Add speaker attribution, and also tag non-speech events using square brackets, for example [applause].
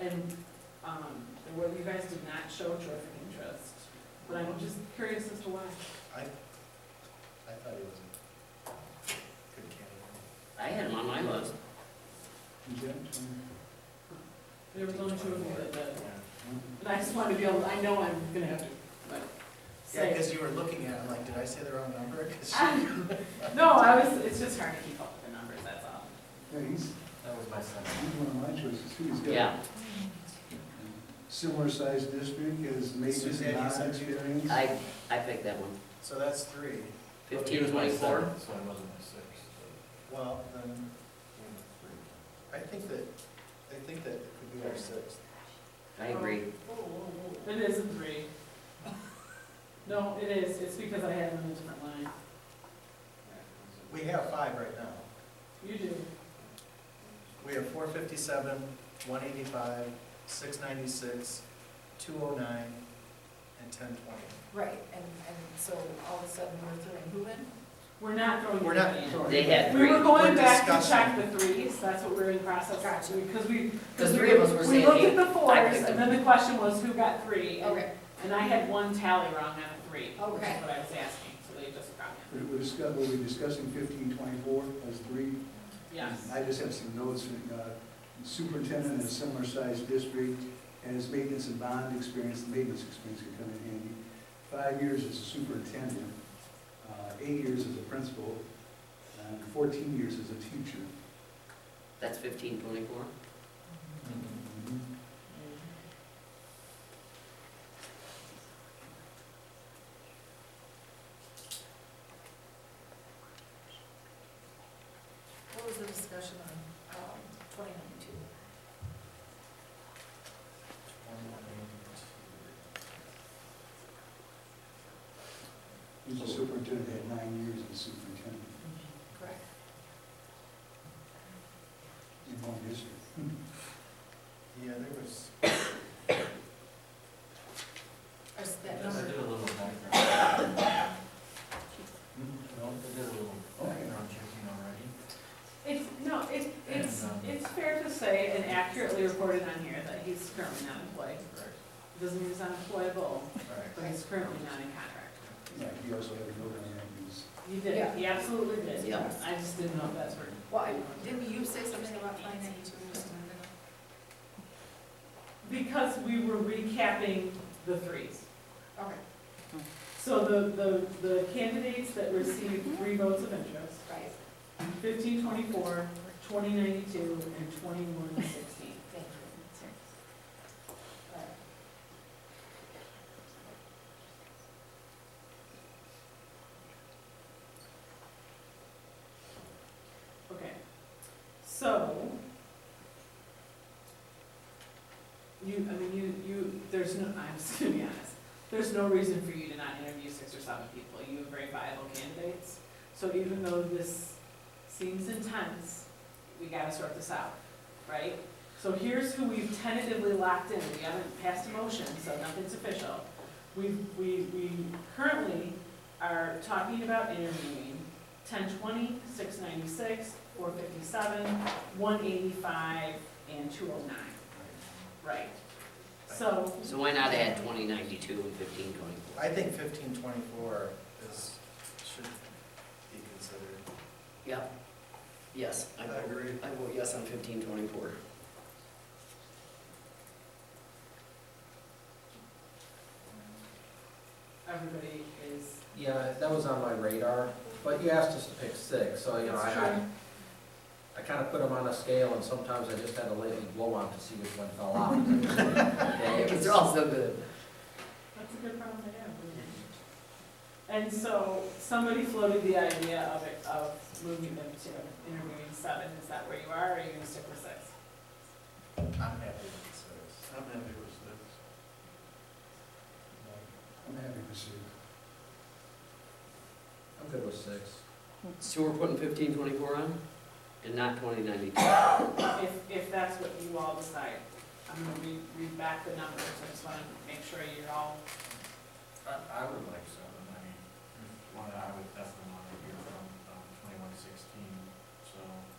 Speaker 1: And, um, and whether you guys did not show terrific interest, but I'm just curious as to why.
Speaker 2: I thought he was a good candidate.
Speaker 3: I had him on my list.
Speaker 1: There was only two of you that did. And I just wanted to be able, I know I'm gonna have to, like,
Speaker 2: Yeah,
Speaker 1: say.
Speaker 2: because you were looking at him like, did I say the wrong number? 'Cause
Speaker 1: [laughs]
Speaker 3: [laughs]
Speaker 1: No, I was, it's just hard to keep up with the numbers, that's all.
Speaker 4: Yeah, he's,
Speaker 2: That was my son.
Speaker 4: he's one of my choices, too. He's got a
Speaker 3: Yeah,
Speaker 4: Similar sized district as Mason's
Speaker 2: Suzanne, you
Speaker 4: not
Speaker 2: said you-
Speaker 4: experience.
Speaker 3: I, I picked that one.
Speaker 2: So that's three. Oh,
Speaker 3: Fifteen twenty-four.
Speaker 5: So I wasn't my six.
Speaker 2: Well, then, I think that, I think that it could be our sixth.
Speaker 3: I agree.
Speaker 1: Um, It is a three. No, it is, it's because I had them in a different line.
Speaker 2: We have five right now.
Speaker 1: You do.
Speaker 2: We have four fifty-seven, one eighty-five, six ninety-six, two oh nine, and ten twenty.
Speaker 6: Right, and, and so all of a sudden we're throwing who in?
Speaker 1: We're not throwing.
Speaker 2: We're not
Speaker 1: anybody in.
Speaker 4: Sorry.
Speaker 3: They had
Speaker 1: We were
Speaker 3: three.
Speaker 1: going
Speaker 2: We're
Speaker 1: back to check
Speaker 2: discussing.
Speaker 1: the threes, that's what we're in process,
Speaker 6: Gotcha.
Speaker 1: because we.
Speaker 3: The three of us were saying
Speaker 1: We looked at the
Speaker 3: I
Speaker 1: fours,
Speaker 3: picked
Speaker 1: and then the question was who got three, and-
Speaker 6: Okay,
Speaker 1: and I had one tally wrong on a three, which is what
Speaker 6: Okay.
Speaker 1: I was asking, so they just got me.
Speaker 4: We were discussing, we were discussing fifteen twenty-four as three.
Speaker 1: Yes,
Speaker 4: I just have some notes, uh, superintendent in a similar sized district, and his maintenance and bond experience, the maintenance experience could come in handy. Five years as a superintendent, uh, eight years as a principal, and fourteen years as a teacher.
Speaker 3: That's fifteen twenty-four.
Speaker 2: Mm-hmm.
Speaker 6: what was the discussion on, um, twenty-nine-two?
Speaker 4: He's a superintendent, had nine years as superintendent
Speaker 6: Correct.
Speaker 4: in one district.
Speaker 2: Yeah, there was,
Speaker 6: Or is that
Speaker 5: Yes, I
Speaker 6: number,
Speaker 5: did a little background.
Speaker 2: no,
Speaker 5: I did a little background checking already.
Speaker 1: it's, no, it's, it's,
Speaker 5: And, um,
Speaker 1: it's fair to say and accurately reported on here that he's currently not employed.
Speaker 2: right,
Speaker 1: Doesn't mean he's unemployable,
Speaker 2: right.
Speaker 1: but he's currently not in contract.
Speaker 4: Yeah, he also had a note on that, he was-
Speaker 1: He did,
Speaker 6: Yeah.
Speaker 1: he absolutely did.
Speaker 3: Yeah.
Speaker 1: I just didn't know if that's where.
Speaker 6: why, didn't you say something about twenty-nine-two or something?
Speaker 1: Because we were recapping the threes.
Speaker 6: Okay,
Speaker 1: So the, the, the candidates that received three votes of interest,
Speaker 6: right,
Speaker 1: fifteen twenty-four, twenty ninety-two, and twenty-one sixteen.
Speaker 6: thank you. Right.
Speaker 1: Okay, so. You, I mean, you, you, there's no, [laughs] I'm just gonna be honest, there's no reason for you to not interview six or seven people, you have very viable candidates. So even though this seems intense, we gotta sort this out, right? So here's who we've tentatively locked in, we haven't passed a motion, so nothing's official. We, we, we currently are talking about interviewing ten twenty, six ninety-six, four fifty-seven, one eighty-five, and two oh nine, right? So,
Speaker 3: So why not add twenty ninety-two and fifteen twenty-four?
Speaker 2: I think fifteen twenty-four is, should be considered.
Speaker 3: Yep. Yes, I vote,
Speaker 2: agree.
Speaker 3: I vote yes on fifteen twenty-four.
Speaker 2: [laughs]
Speaker 1: everybody is,
Speaker 7: Yeah, that was on my radar, but you asked us to pick six, so, you know, Oh, I,
Speaker 1: that's
Speaker 7: I,
Speaker 1: true,
Speaker 7: I kind of put them on a scale, and sometimes I just had to lightly blow on to see which one fell
Speaker 1: [laughs]
Speaker 7: off. Okay,
Speaker 3: Because they're all so good.
Speaker 1: that's a good problem to have. isn't it? And so, somebody floated the idea of it, of moving them to interviewing seven, is that where you are, or are you gonna stick with six?
Speaker 2: I'm happy with six.
Speaker 5: I'm happy with six.
Speaker 4: I'm happy to see.
Speaker 7: I'm good with six.
Speaker 3: So we're putting fifteen twenty-four on and not twenty ninety-two?
Speaker 1: If, if that's what you all decide, I'm gonna read, read back the numbers, I just wanna make sure you're all,
Speaker 5: I, I would like seven, I mean, one I would definitely want to hear from, um, twenty-one sixteen, so.